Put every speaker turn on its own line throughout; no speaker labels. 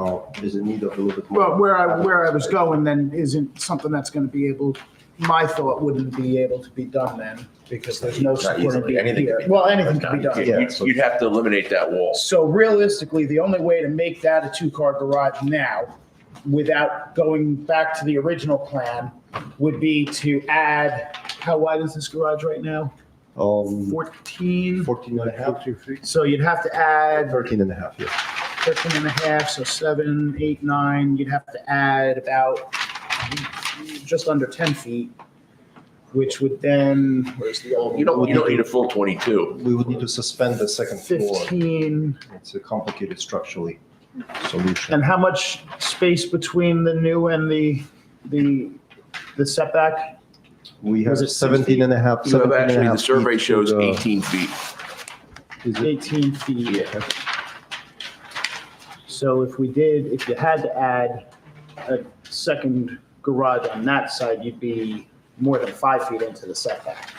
now is in need of a little bit more.
Well, where I, where I was going then isn't something that's gonna be able, my thought wouldn't be able to be done then, because there's no support
easily.
being
Anything can
here.
be
Well, anything can be done,
Yeah,
yeah.
You'd you'd have to eliminate that wall.
So realistically, the only way to make that a two-car garage now, without going back to the original plan, would be to add, how wide is this garage right now?
Um,
Fourteen?
14 and a half,
So you'd have to add
13 and a half, yeah.
13 and a half, so seven, eight, nine, you'd have to add about just under 10 feet, which would then, where's the old?
You don't, you don't need a full 22.
We would need to suspend the second floor.
15,
It's a complicated structurally solution.
and how much space between the new and the, the, the setback?
We have
was it
17 and a half,
You have
17 and a
actually, the
half
survey
feet to
shows
the-
18 feet.
is it-
18 feet.
Yeah.
So if we did, if you had to add a second garage on that side, you'd be more than five feet into the setback.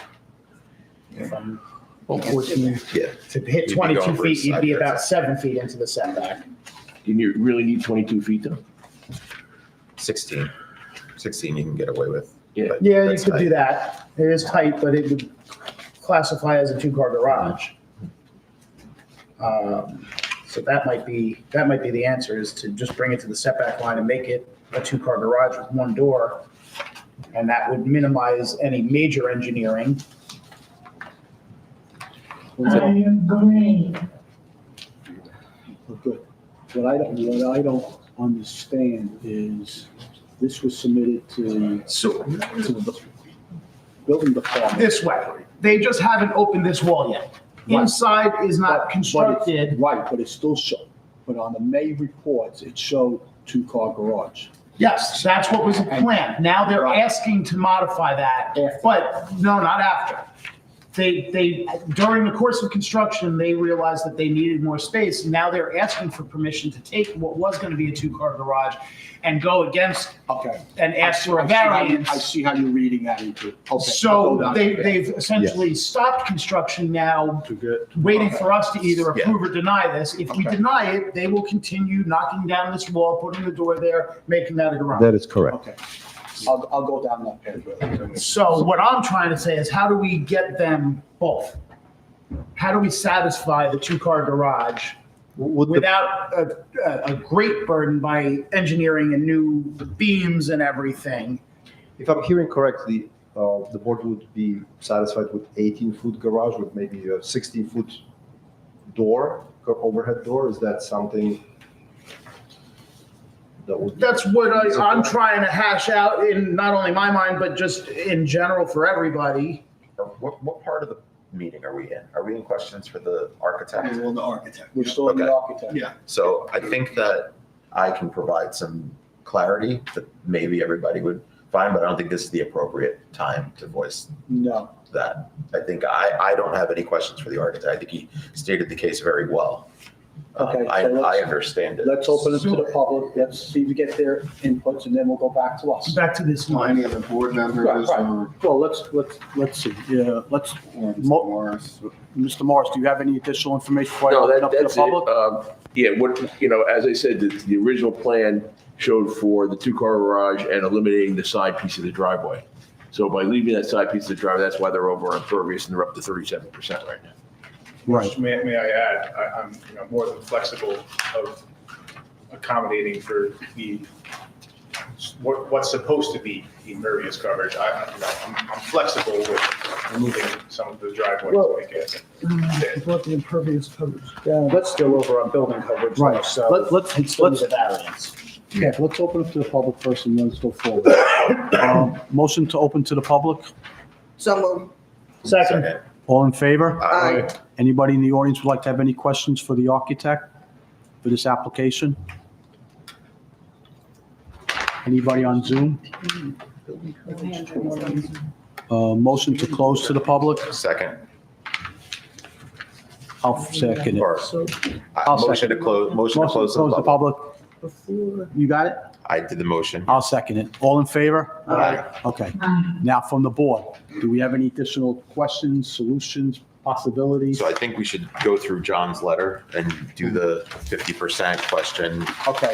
From 14,
Yeah.
to hit
be
22
going for a
feet, you'd
side
be
yard
about seven feet into the setback.
Do you really need 22 feet though?
16. 16 you can get away with.
Yeah.
but
Yeah, you
that's
could do
tight.
that. It is tight, but it would classify as a two-car garage. Um, So that might be, that might be the answer, is to just bring it to the setback line and make it a two-car garage with one door. And that would minimize any major engineering.
I agree.
Okay. What I don't, what I don't understand is, this was submitted to,
So
to the building department.
this way, they just haven't opened this wall yet.
Right.
Inside is
but-
not
but it-
constructed.
Right, but it still showed, but on the May reports, it showed two-car garage.
Yes, that's what was the plan. Now they're asking to modify that, but no, not after. They, they, during the course of construction, they realized that they needed more space. Now they're asking for permission to take what was going to be a two-car garage and go against
Okay.
and ask for a
I see how you- I
variance.
see how you're reading that into, okay. I'll go
So
down.
they, they've essentially stopped construction now, waiting for us to either
Yeah.
approve or deny this. If we
Okay.
deny it, they will continue knocking down this wall, putting the door there, making that a garage.
That is correct.
Okay. I'll, I'll go down that path. really.
So what I'm trying to say is how do we get them both? How do we satisfy the two-car garage
Would the-
Oh. without a, a, a great burden by engineering and new beams and everything?
If I'm hearing correctly, uh, the board would be satisfied with 18-foot garage with maybe a 16-foot door, co- overhead door? Is that something that would? be-
That's what I, I'm trying to hash out in not only my mind, but just in general for everybody.
What, what part of the meeting are we in? Are we in questions for the architect?
Well, the architect. We're still in the
Okay.
architect.
Yeah.
So I think that I can provide some clarity that maybe everybody would find, but I don't think this is the appropriate time to voice
No.
that. I think I, I don't have any questions for the architect. I think he stated the case very well. Um,
Okay, so
I, I
let's-
understand it.
Let's open it to the public, let's see if we get their inputs, and then we'll go back to us.
Back to this
Well, Any
line.
of the board members
Right, right.
or
Well, let's, let's, let's see, yeah, let's,
or Mr.
Mo-
Morris?
Mr. Morris, do you have any additional information before I
No,
open
that,
up to the
that's it.
public?
Um, Yeah, what, you know, as I said, the, the original plan showed for the two-car garage and eliminating the side piece of the driveway. So by leaving that side piece of the driveway, that's why they're over impervious and they're up to 37% right now.
Right.
May, may I add, I, I'm, you know, more than flexible of accommodating for the, what, what's supposed to be impervious coverage. I, I, you know, I'm, I'm flexible with removing some of the driveways
Well-
like it.
What the impervious coverage
Let's go over on building coverage. Right,
so
Let- let's,
It's
let's,
still a
let's,
variance.
yeah, let's open up to the public first, and let's go forward. Um, Motion to open to the public,
So moved.
Second,
all in favor?
Aye.
Anybody in the audience would like to have any questions for the architect for this application? Anybody on Zoom? Uh, Motion to close to the public,
Second,
I'll second it.
or,
so
uh,
I'll
motion to
second.
close, motion to
Motion
close to the public.
public. You got it?
I did the motion.
I'll second it. All in favor?
Aye.
Okay.
Aye.
Now, from the board, do we have any additional questions, solutions, possibilities?
So I think we should go through John's letter and do the 50% question
Okay.